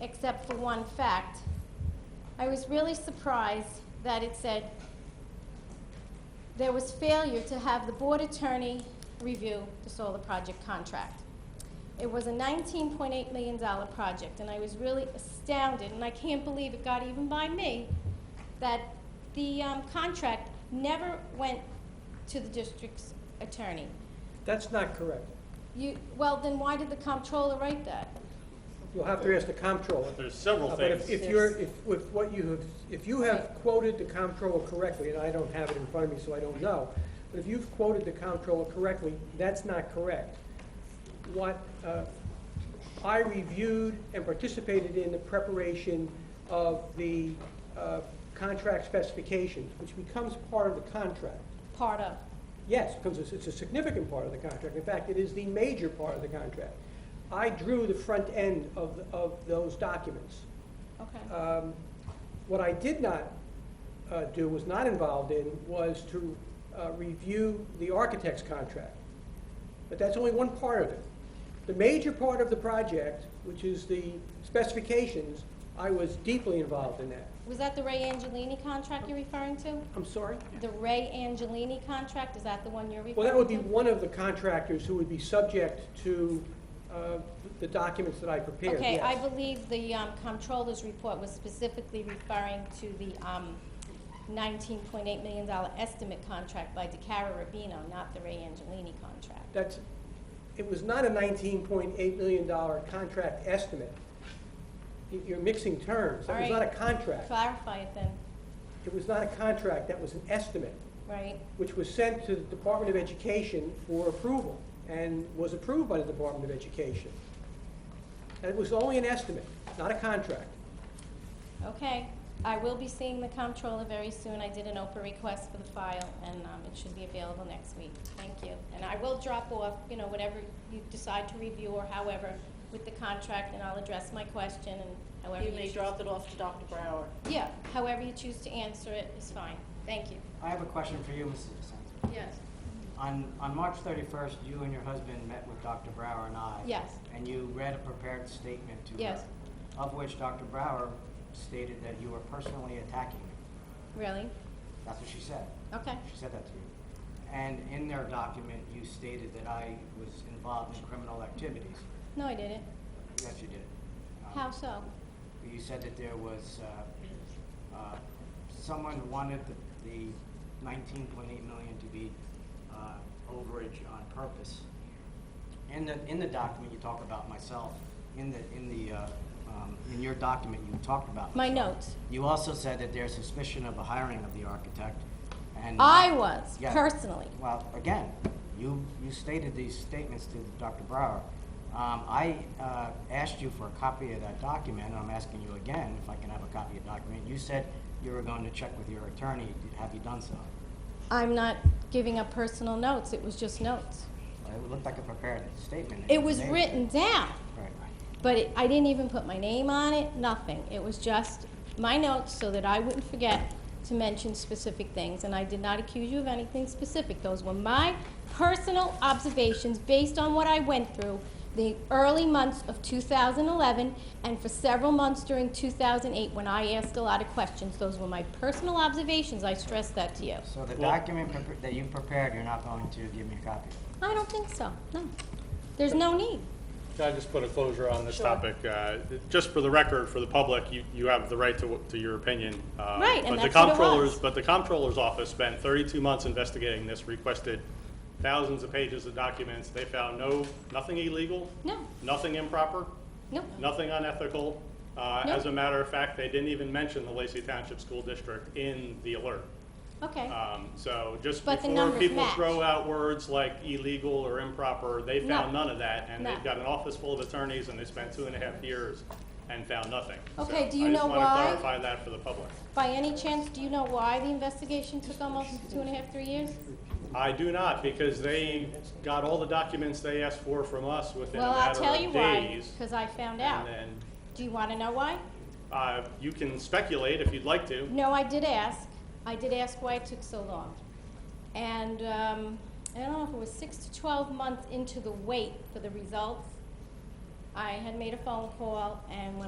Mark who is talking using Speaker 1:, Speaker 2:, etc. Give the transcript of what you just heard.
Speaker 1: except for one fact. I was really surprised that it said there was failure to have the board attorney review the solar project contract. It was a $19.8 million project, and I was really astounded, and I can't believe it got even by me, that the um, contract never went to the district's attorney.
Speaker 2: That's not correct.
Speaker 1: You, well, then why did the comptroller write that?
Speaker 2: You'll have to ask the comptroller.
Speaker 3: There's several
Speaker 2: Uh, But if-
Speaker 3: things.
Speaker 2: if you're, if, if what you have, if you have quoted the comptroller correctly, and I don't have it in front of me, so I don't know, but if you've quoted the comptroller correctly, that's not correct. What uh, I reviewed and participated in the preparation of the uh, contract specifications, which becomes part of the contract.
Speaker 1: Part of.
Speaker 2: Yes, because it's, it's a significant part of the contract. In fact, it is the major part of the contract. I drew the front end of, of those documents.
Speaker 1: Okay.
Speaker 2: Um, What I did not uh, do, was not involved in, was to uh, review the architect's contract. But that's only one part of it. The major part of the project, which is the specifications, I was deeply involved in that.
Speaker 1: Was that the Ray Angelini contract you're referring to?
Speaker 2: I'm sorry?
Speaker 1: The Ray Angelini contract, is that the one you're referring to?
Speaker 2: Well, that would be one of the contractors who would be subject to uh, the documents that I prepared,
Speaker 1: Okay, I
Speaker 2: yes.
Speaker 1: believe the um, comptroller's report was specifically referring to the um, $19.8 million estimate contract by DeCara Rubino, not the Ray Angelini contract.
Speaker 2: That's, it was not a $19.8 million contract estimate. You- You're mixing terms. That was
Speaker 1: All
Speaker 2: not
Speaker 1: right.
Speaker 2: a contract.
Speaker 1: Clarify it then,
Speaker 2: It was not a contract, that was an estimate,
Speaker 1: right?
Speaker 2: which was sent to the Department of Education for approval and was approved by the Department of Education. And it was only an estimate, not a contract.
Speaker 1: Okay, I will be seeing the comptroller very soon. I did an Oprah request for the file, and um, it should be available next week. Thank you. And I will drop off, you know, whatever you decide to review or however with the contract, and I'll address my question and however you
Speaker 4: You
Speaker 1: choose.
Speaker 4: may drop it off to Dr. Brower.
Speaker 1: Yeah, however you choose to answer it is fine. Thank you.
Speaker 5: I have a question for you, Mrs. DeSantis.
Speaker 4: Yes.
Speaker 5: On, on March 31st, you and your husband met with Dr. Brower and I.
Speaker 1: Yes.
Speaker 5: And you read a prepared statement to her.
Speaker 1: Yes.
Speaker 5: Of which Dr. Brower stated that you were personally attacking me.
Speaker 1: Really?
Speaker 5: That's what she said.
Speaker 1: Okay.
Speaker 5: She said that to you. And in their document, you stated that I was involved in criminal activities.
Speaker 1: No, I didn't.
Speaker 5: Yes, you did. Um,
Speaker 1: How so?
Speaker 5: You said that there was, uh, uh, someone wanted the, the nineteen point eight million to be, uh, overage on purpose. In the, in the document, you talk about myself, in the, in the, uh, um, in your document, you talked about.
Speaker 1: My
Speaker 5: myself.
Speaker 1: notes.
Speaker 5: You also said that there's suspicion of a hiring of the architect, and.
Speaker 1: I was,
Speaker 5: Yeah.
Speaker 1: personally.
Speaker 5: Well, again, you, you stated these statements to Dr. Brower. Um, I, uh, asked you for a copy of that document, and I'm asking you again if I can have a copy of the document. You said you were going to check with your attorney. Have you done so?
Speaker 1: I'm not giving up personal notes. It was just notes.
Speaker 5: It looked like a prepared statement.
Speaker 1: It was
Speaker 5: Name-
Speaker 1: written down.
Speaker 5: Right.
Speaker 1: But it, I didn't even put my name on it, nothing. It was just my notes so that I wouldn't forget to mention specific things. And I did not accuse you of anything specific. Those were my personal observations based on what I went through the early months of 2011 and for several months during 2008 when I asked a lot of questions. Those were my personal observations. I stressed that to you.
Speaker 5: So the
Speaker 3: Well-
Speaker 5: document prepar- that you prepared, you're not going to give me a copy?
Speaker 1: I don't think so. No. There's no need.
Speaker 3: Can I just put a closure on this
Speaker 4: Sure.
Speaker 3: topic? Uh, Just for the record, for the public, you, you have the right to, to your opinion. uh,
Speaker 1: Right, and
Speaker 3: but the
Speaker 1: that's what it
Speaker 3: comptroller's-
Speaker 1: was.
Speaker 3: But the comptroller's office spent 32 months investigating this, requested thousands of pages of documents. They found no, nothing illegal.
Speaker 1: No.
Speaker 3: Nothing improper,
Speaker 1: No.
Speaker 3: nothing unethical. Uh,
Speaker 1: No.
Speaker 3: As a matter of fact, they didn't even mention the Lacey Township School District in the alert.
Speaker 1: Okay.
Speaker 3: Um, So just
Speaker 1: But the
Speaker 3: before
Speaker 1: numbers
Speaker 3: people
Speaker 1: match.
Speaker 3: throw out words like illegal or improper, they found
Speaker 1: No.
Speaker 3: none of that. And
Speaker 1: No.
Speaker 3: they've got an office full of attorneys and they spent two and a half years and found nothing.
Speaker 1: Okay,
Speaker 3: So
Speaker 1: do you know
Speaker 3: I just
Speaker 1: why?
Speaker 3: want to clarify that for the public.
Speaker 1: By any chance, do you know why the investigation took almost two and a half, three years?
Speaker 3: I do not, because they got all the documents they asked for from us within a
Speaker 1: Well, I'll
Speaker 3: matter
Speaker 1: tell you
Speaker 3: of
Speaker 1: why,
Speaker 3: days.
Speaker 1: because I found out.
Speaker 3: And then,
Speaker 1: Do you want to know why?
Speaker 3: uh, you can speculate if you'd like to.
Speaker 1: No, I did ask. I did ask why it took so long. And um, I don't know if it was six to 12 months into the wait for the results. I had made a phone call, and when